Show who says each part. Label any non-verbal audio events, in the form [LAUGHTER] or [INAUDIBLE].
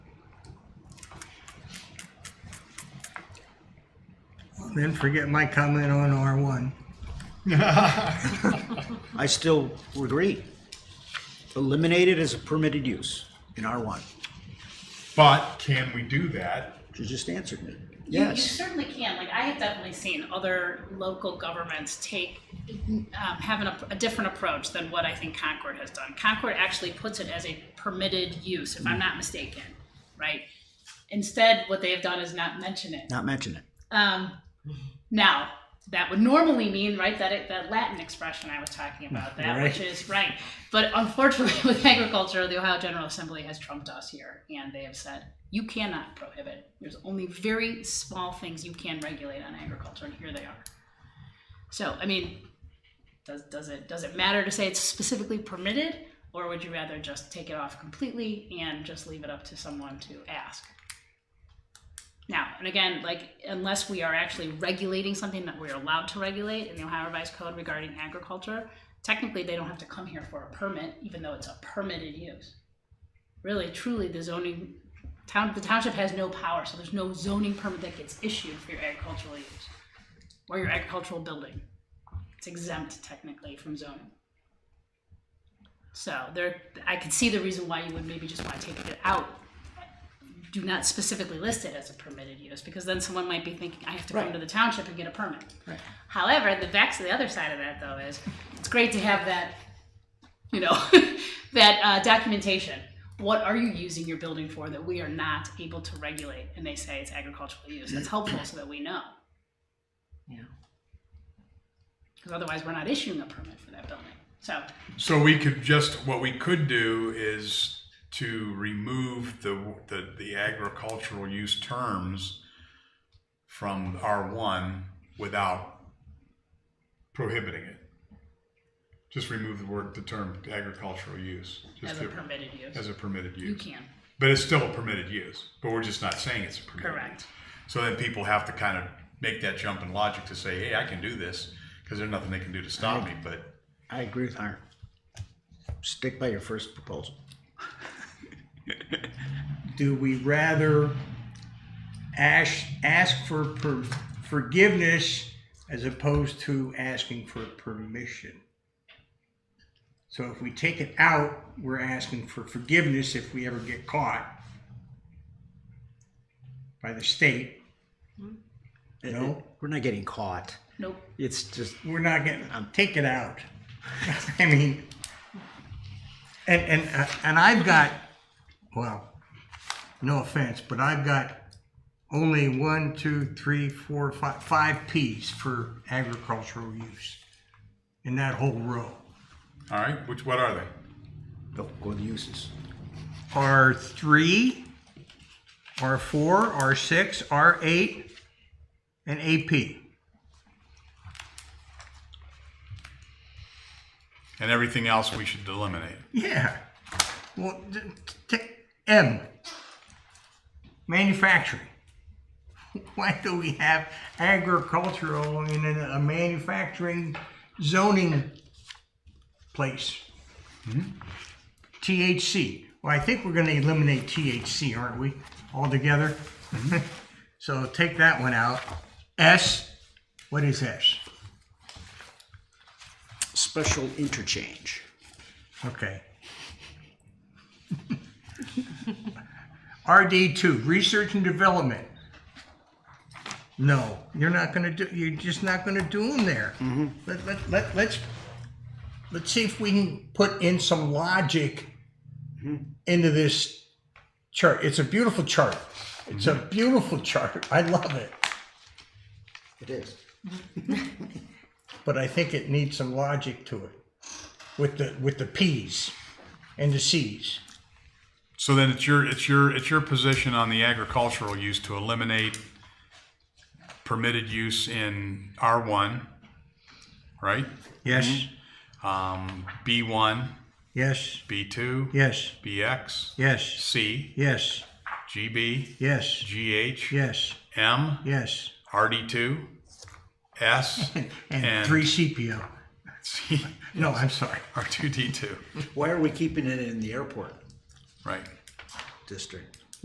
Speaker 1: Then forget my comment on R1.
Speaker 2: I still agree. Eliminate it as a permitted use in R1.
Speaker 3: But can we do that?
Speaker 2: You just answered me.
Speaker 4: You- You
Speaker 2: Yes.
Speaker 4: certainly can, like, I have definitely seen other local governments take, um, have an, ap- a different approach than what I think Concord has done. Concord actually puts it as a permitted use, if I'm not mistaken, right? Instead, what they have done is not mention it.
Speaker 2: Not mention it.
Speaker 4: Um, now, that would normally mean, right, that it, that Latin expression I was talking about, that which is right. But unfortunately, [LAUGHS] with agriculture, the Ohio General Assembly has trumped us here, and they have said you cannot prohibit. There's only very small things you can regulate on agriculture, and here they are. So, I mean, does does it does it matter to say it's specifically permitted, or would you rather just take it off completely and just leave it up to someone to ask? Now, and again, like unless we are actually regulating something that we're allowed to regulate in the Ohio Revised Code regarding agriculture, technically they don't have to come here for a permit, even though it's a permitted use. Really, truly, the zoning town the township has no power, so there's no zoning permit that gets issued for your agricultural use or your agricultural building. It's exempt technically from zoning. So there, I could see the reason why you would maybe just want to take it out do not specifically list it as a permitted use because then someone might be thinking I have to come to the township and get a permit. However, the back to the other side of that though is it's great to have that, you know, [LAUGHS] that uh, documentation. What are you using your building for that we are not able to regulate? And they say it's agricultural use. That's helpful so that we know.
Speaker 1: Yeah.
Speaker 4: Because otherwise, we're not issuing a permit for that building. So
Speaker 3: So we could just, what we could do is to remove the, the, the agricultural use terms from R1 without prohibiting it. Just remove the word, the term agricultural use. just
Speaker 4: as a
Speaker 3: to-
Speaker 4: permitted use,
Speaker 3: As a permitted
Speaker 4: you
Speaker 3: use.
Speaker 4: can.
Speaker 3: But it's still a permitted use, but we're just not saying it's a permitted.
Speaker 4: Correct.
Speaker 3: use. So then people have to kind of make that jump in logic to say, hey, I can do this, because there's nothing they can do to stop me, but
Speaker 2: I agree with Hiram. Stick by your first proposal.
Speaker 1: Do we rather ask, ask for per- forgiveness as opposed to asking for permission? So if we take it out, we're asking for forgiveness if we ever get caught by the state. No.
Speaker 2: We're not getting caught.
Speaker 4: Nope.
Speaker 2: It's just,
Speaker 1: We're not getting, um, take it out. [LAUGHS] I mean, and, and, and I've got, well, no offense, but I've got only one, two, three, four, five, five Ps for agricultural use in that whole row.
Speaker 3: All right, which, what are they?
Speaker 2: go, go with the uses.
Speaker 1: R three, R four, R six, R eight, and AP.
Speaker 3: And everything else we should eliminate.
Speaker 1: Yeah. Well, t- t- t- M. Manufacturing. [LAUGHS] Why do we have agricultural in a a manufacturing zoning place? THC. Well, I think we're going to eliminate THC, aren't we, altogether? [LAUGHS] so take that one out. S. What is S?
Speaker 2: Special interchange.
Speaker 1: Okay. RD two, research and development. No, you're not gonna do, you're just not gonna do them there. Let, let, let, let's, let's see if we can put in some logic into this chart. It's a beautiful chart. It's a beautiful chart. I love it.
Speaker 2: It is.
Speaker 1: but I think it needs some logic to it with the with the P's and the C's.
Speaker 3: So then it's your, it's your, it's your position on the agricultural use to eliminate permitted use in R1, right?
Speaker 1: Yes.
Speaker 3: Um, B1,
Speaker 1: Yes.
Speaker 3: B2,
Speaker 1: Yes.
Speaker 3: BX,
Speaker 1: Yes.
Speaker 3: C,
Speaker 1: Yes.
Speaker 3: GB,
Speaker 1: Yes.
Speaker 3: GH,
Speaker 1: Yes.
Speaker 3: M,
Speaker 1: Yes.
Speaker 3: RD2, S, [LAUGHS]
Speaker 1: And
Speaker 3: And-
Speaker 1: three CPO.
Speaker 3: C,
Speaker 1: No, I'm sorry.
Speaker 3: R2D2.
Speaker 2: Why are we keeping it in the airport
Speaker 3: Right.
Speaker 2: district?